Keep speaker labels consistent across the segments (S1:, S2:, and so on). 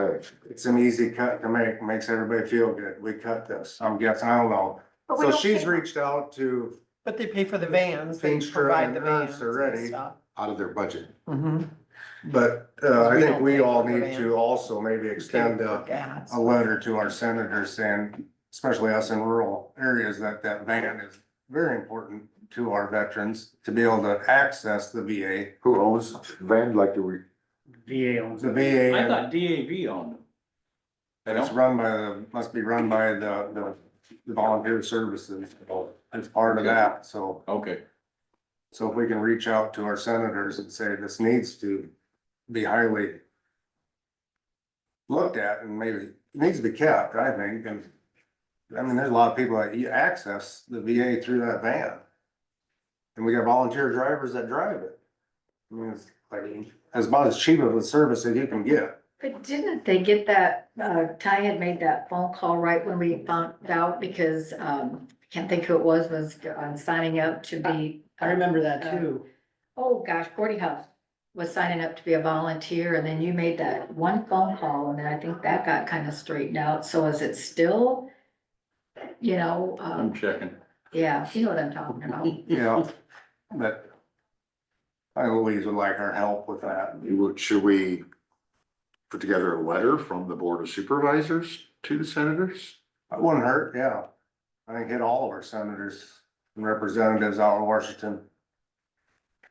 S1: it, it's an easy cut to make, makes everybody feel good, we cut this, I'm guessing, I don't know.
S2: But we
S1: So
S2: don't
S1: she's
S2: pay-
S1: reached out to
S3: But they pay for the vans, they
S1: Finster
S3: provide
S1: and
S3: the
S1: Hearst
S3: vans
S1: already.
S3: and stuff.
S4: out of their budget.
S3: Mhm.
S1: But uh, I
S3: We
S1: think
S3: don't
S1: we
S3: pay
S1: all
S3: for the
S1: need to
S3: van.
S1: also maybe extend
S3: Pay for
S1: a,
S3: gas.
S1: a letter to our senators saying, especially us in rural areas, that that van is very important to our veterans to be able to access the VA.
S4: Who owns Van, like the, re-
S5: VA owns.
S1: The
S5: it.
S1: VA
S5: I
S1: and-
S5: thought DAV owned them.
S1: And it's run by the, must be run by the, the volunteer services. It's part of that, so,
S5: Okay.
S1: so if we can reach out to our senators and say this needs to be highly looked at and maybe, it needs to be kept, I think, and I mean, there's a lot of people that you access the VA through that van. And we got volunteer drivers that drive it. I mean, it's like, as about as cheap of a service as you can get.
S6: But didn't they get that, uh, Ty had made that phone call right when we found out because, um, I can't think who it was, was on signing up to be. uh,
S3: I remember that too.
S6: Oh, gosh, Gordy House was signing up to be a volunteer and then you made that one phone call and then I think that got kind of straightened out. So is it still? You know,
S5: I'm
S6: um,
S5: checking.
S6: yeah, you know what I'm talking about.
S1: Yeah, but I always would like our help with that.
S4: you- should we put together a letter from the Board of Supervisors to the senators?
S1: It wouldn't hurt, yeah. I think hit all of our senators and representatives out in Washington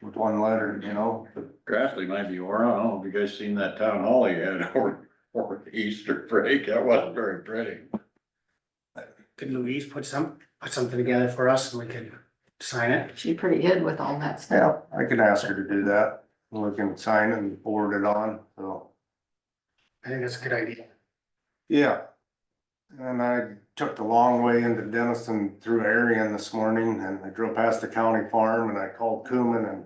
S1: with one letter, you know?
S5: Grassley might be, or I don't know, have you guys seen that town hall he had over, over the Easter break? That wasn't very pretty.
S7: Could Louise put some, put something together for us and we could sign it?
S6: She pretty hid with all that stuff.
S1: Yeah, I could ask her to do that. We can sign it and forward it on, so,
S7: I think that's a good idea.
S1: yeah. And I took the long way into Denison through Arion this morning and I drove past the county farm and I called Cooman and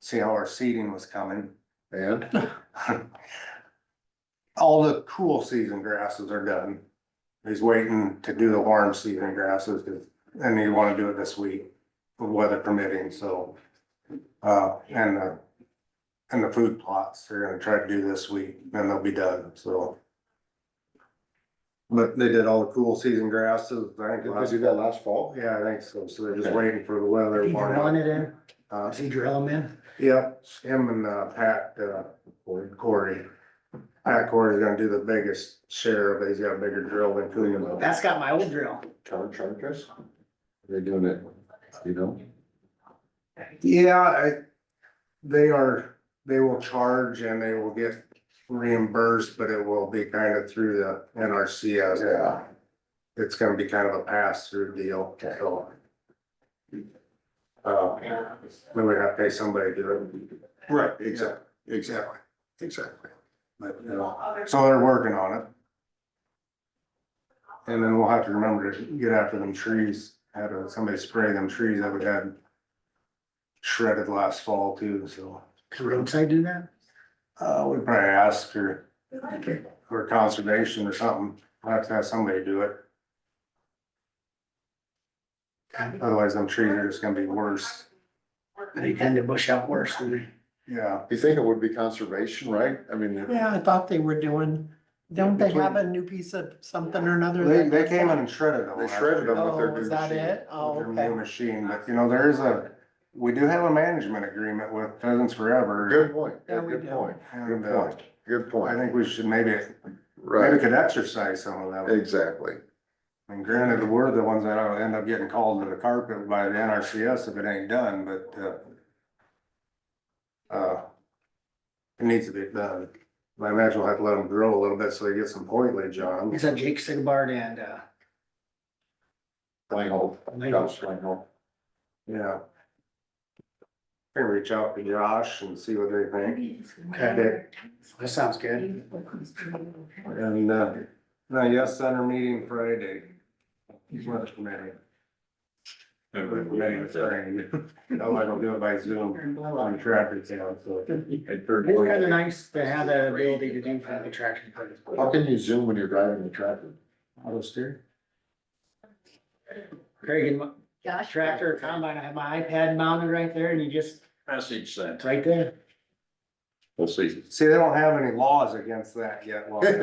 S1: see how our seeding was coming.
S4: And
S1: All the cool season grasses are done. He's waiting to do the warm season grasses, 'cause- and he wanna do it this week, weather permitting, so. Uh, and the, and the food plots, they're gonna try to do this week, and they'll be done, so. But they did all the cool season grasses, I think,
S4: did they
S1: last-
S4: do that last fall?
S1: yeah, I think so, so they're just
S4: Okay.
S1: waiting for the weather.
S7: Did he
S1: warm
S7: drill
S1: up.
S7: it in?
S1: Uh,
S7: Does he drill them in?
S1: Yep, him and uh, Pat, uh, Corey. Pat Corey's gonna do the biggest share of it. He's got a bigger drill than Coogan.
S7: That's got my old drill.
S4: Charge, charge us? They're doing it, you know?
S1: Yeah, I, they are, they will charge and they will get reimbursed, but it will be kind of through the NRCS.
S4: Yeah.
S1: It's gonna be kind of a pass-through deal, so. Uh, we would have to pay somebody to do it.
S4: Right,
S1: exact-
S4: exactly, exactly.
S1: But, you know, So they're working on it. And then we'll have to remember to get after them trees, had uh, somebody spray them trees that we had shredded last fall too, so.
S7: Can roadside do that?
S1: Uh, we probably ask her, for conservation or something, we'll have to have somebody do it, otherwise them trees are just gonna be worse,
S7: They tend to bush out worse than they.
S1: yeah.
S4: You think it would be conservation, right? I mean.
S3: Yeah, I thought they were doing, don't they have a
S1: Between-
S3: new piece of something or another?
S1: They,
S3: that-
S1: they came in and shredded them.
S4: They shredded them. with their
S3: Oh,
S4: new
S3: is that
S4: machine.
S3: it? Oh,
S1: With their new
S3: okay.
S1: machine, but you know, there is a, we do have a management agreement with Pheasants Forever.
S4: Good point,
S3: Yeah, we
S4: good
S3: do.
S4: point,
S1: And,
S4: good
S1: uh,
S4: point, good
S1: I
S4: point,
S1: think we should maybe, maybe
S4: right,
S1: could exercise some of that.
S4: exactly.
S1: And granted, we're the ones that end up getting called to the carpet by the NRCS if it ain't done, but, uh, uh, it needs to be done. I imagine we'll have to let them grow a little bit so they get some foliage on
S7: Is
S1: 'em.
S7: that Jake Sigbard and, uh,
S4: Langhold, Josh Langhold.
S1: Yeah. Can reach out to Josh and see what they think.
S7: Okay. that sounds good.
S1: And, uh, no, yes, center meeting Friday. Work committee. Work committee is starting. No, I don't do it by Zoom. I'm traffic jam, so.
S5: At
S4: Mm-hmm.
S5: third
S7: It's kind of
S5: place.
S7: nice to have that ability to do family traction.
S4: How can you zoom when you're driving the tractor?
S1: Auto steer?
S7: Very good. mo-
S6: Gosh.
S7: Tractor combine, I have my iPad mounted right there and you just,
S5: Message sent.
S7: it's right there.
S5: We'll see.
S1: See, they don't have any laws against that yet. well.